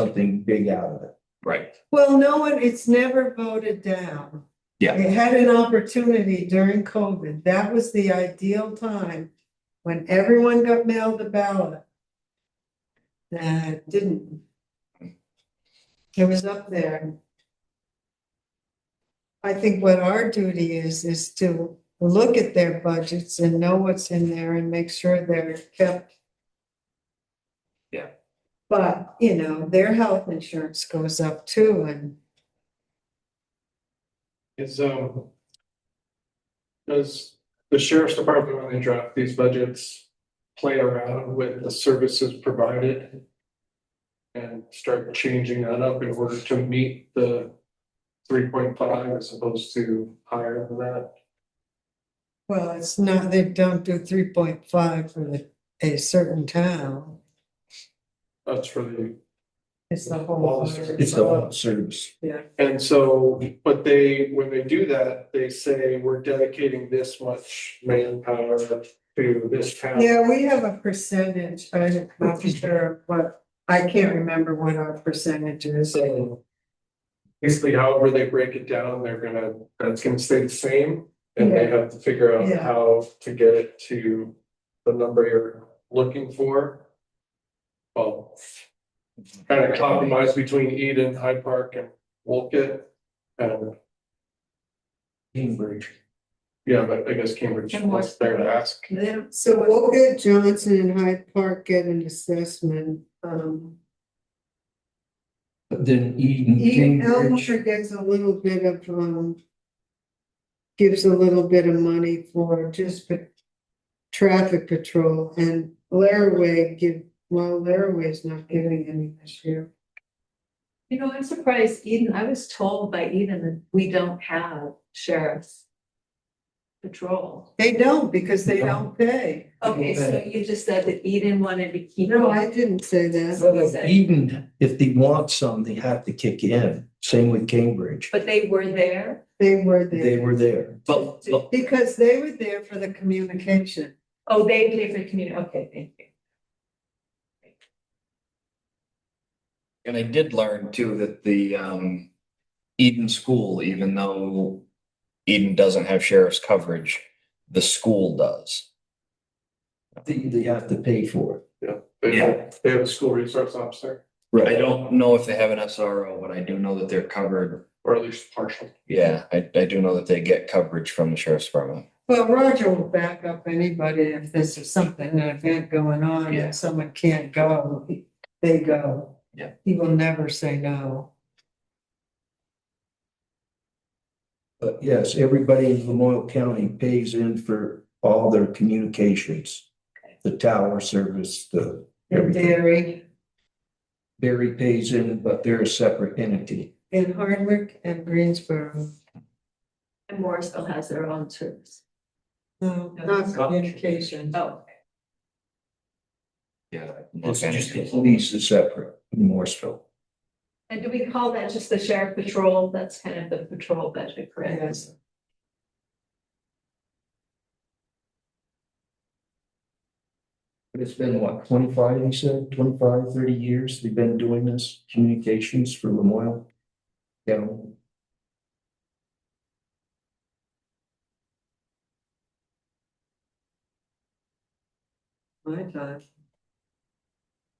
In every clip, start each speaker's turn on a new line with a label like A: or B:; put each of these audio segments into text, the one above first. A: something big out of it.
B: Right,
C: Well, no one, it's never voted down.
B: Yeah.
C: They had an opportunity during COVID. That was the ideal time when everyone got mailed the ballot. That didn't. It was up there. I think what our duty is, is to look at their budgets and know what's in there and make sure they're kept.
B: Yeah.
C: But, you know, their health insurance goes up too and
D: Is, um. Does the sheriff's department, when they draft these budgets, play around with the services provided? And start changing that up in order to meet the three point five as opposed to higher than that?
C: Well, it's not, they don't do three point five for the, a certain town.
D: That's for the,
C: It's the
D: Well,
C: whole.
D: it's-
A: It's the
C: Uh,
A: whole service.
D: and so, but they, when they do that, they say, we're dedicating this much manpower to this town.
C: Yeah, we have a percentage, I'm not sure what, I can't remember what our percentage is.
D: So. Basically, however they break it down, they're gonna, that's gonna stay the same, and they have to figure out
C: Yeah.
D: how to get it to the number you're looking for. Well. Kind of compromise between Eden, Hyde Park and Wolcott, and,
A: Cambridge.
D: yeah, but I guess Cambridge
E: And
D: was there to ask.
C: So we'll get Johnson and Hyde Park get an assessment, um,
A: But then Eden,
C: Eden
A: Cambridge.
C: Elmer gets a little bit of, um. Gives a little bit of money for just pa- traffic patrol and Laraway give, well, Laraway's not giving any this year.
E: You know, I'm surprised Eden, I was told by Eden that we don't have sheriff's patrol.
C: They don't because they
A: don't
C: pay.
E: Okay, so you just said that Eden wanted to keep.
C: No, I didn't say that.
A: But if Eden, if they want some, they have to kick in. Same with Cambridge.
E: But they were there?
C: They were
A: They
C: there
A: were there.
B: but, but
C: because they were there for the communication.
E: Oh, they paid for the community, okay, thank you.
B: And I did learn too that the um Eden School, even though Eden doesn't have sheriff's coverage, the school does.
A: They, they have to pay for it.
D: They have-
B: Yeah.
D: They have a school resource officer,
B: I don't know if they have an SRO, but I do know that they're covered.
D: or at least partial.
B: Yeah, I I do know that they get coverage from the sheriff's department.
C: Well, Roger will back up anybody if this is something, an event going on
B: Yeah.
C: and someone can't go, they go.
B: Yeah.
C: He will never say no.
A: But yes, everybody in Lamoille County pays in for all their communications. The tower service, the
C: In
A: everything.
C: Derry,
A: Barry pays in, but they're a separate entity.
C: in Hardwick and Greensboro,
E: And Morrisville has their own troops.
C: no, not communication.
E: Oh,
B: Yeah.
A: It's just the police is separate in Morrisville.
E: and do we call that just the sheriff patrol? That's kind of the patrol budget, correct?
C: Yes.
A: But it's been what, twenty-five, you said, 25, 30 years they've been doing this, communications for Lamoille? County.
C: My time.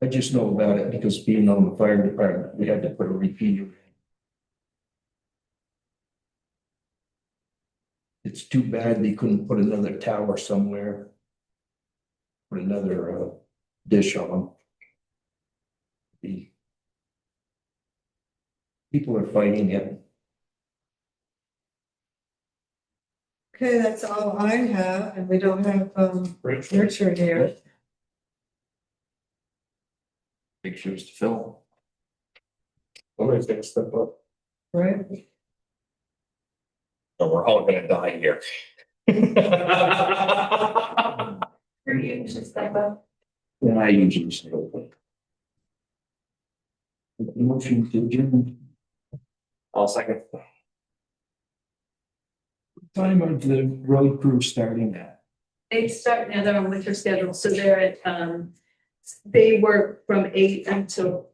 A: I just know about it because being on the fire department, we had to put a repeater. in. It's too bad they couldn't put another tower somewhere. Put another uh, dish on them. The people are fighting it.
C: Okay, that's all I have, and we don't have, um,
D: Rich?
C: Richard here.
B: Big shoes to fill.
D: Somebody's gonna step up.
C: Right.
B: So we're all gonna die here.
E: Or you should step up.
A: Yeah, I usually say. okay. Motion to adjourn.
B: I'll second.
A: Time of the road crew starting at.
E: They start now, they're on winter schedule, so they're at, um, they work from eight until